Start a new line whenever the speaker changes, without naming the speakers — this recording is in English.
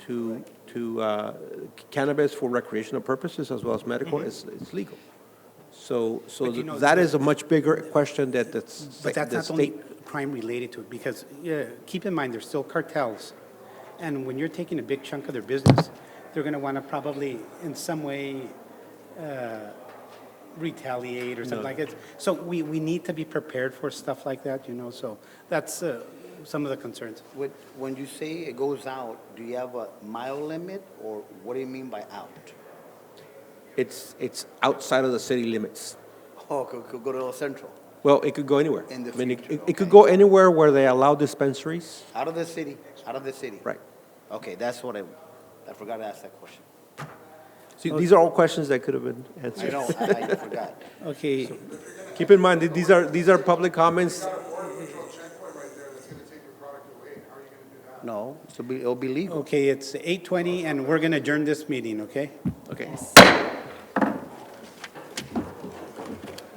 to, to uh, cannabis for recreational purposes as well as medical is, is legal. So, so
Mm-hmm. But you know,
that
the-
is a much bigger question that the s-
But that's
the
not the only
state
crime related to it, because, yeah, keep in mind, there's still cartels. And when you're taking a big chunk of their business, they're gonna wanna probably in some way, uh, retaliate or something like that. So we, we need to be prepared for stuff like that, you know, so that's, uh, some of the concerns.
When, when you say it goes out, do you have a mile limit, or what do you mean by out?
It's, it's outside of the city limits.
Oh, could, could go to El Centro,
Well, it could go anywhere.
In the
I mean, it-
future,
it- It could
okay.
go anywhere where they allow dispensaries.
out of the city, out of the city?
Right.
Okay, that's what I, I forgot to ask that question.
See, these are all questions that could have been
I
answered.
know, I, I forgot.
Okay,
Keep in mind, that these are, these are public comments.
got a border patrol checkpoint right there that's gonna take your product away, how are you gonna do that?
No, it'll be, it'll be legal.
okay, it's eight twenty, and we're gonna adjourn this meeting, okay?
Okay.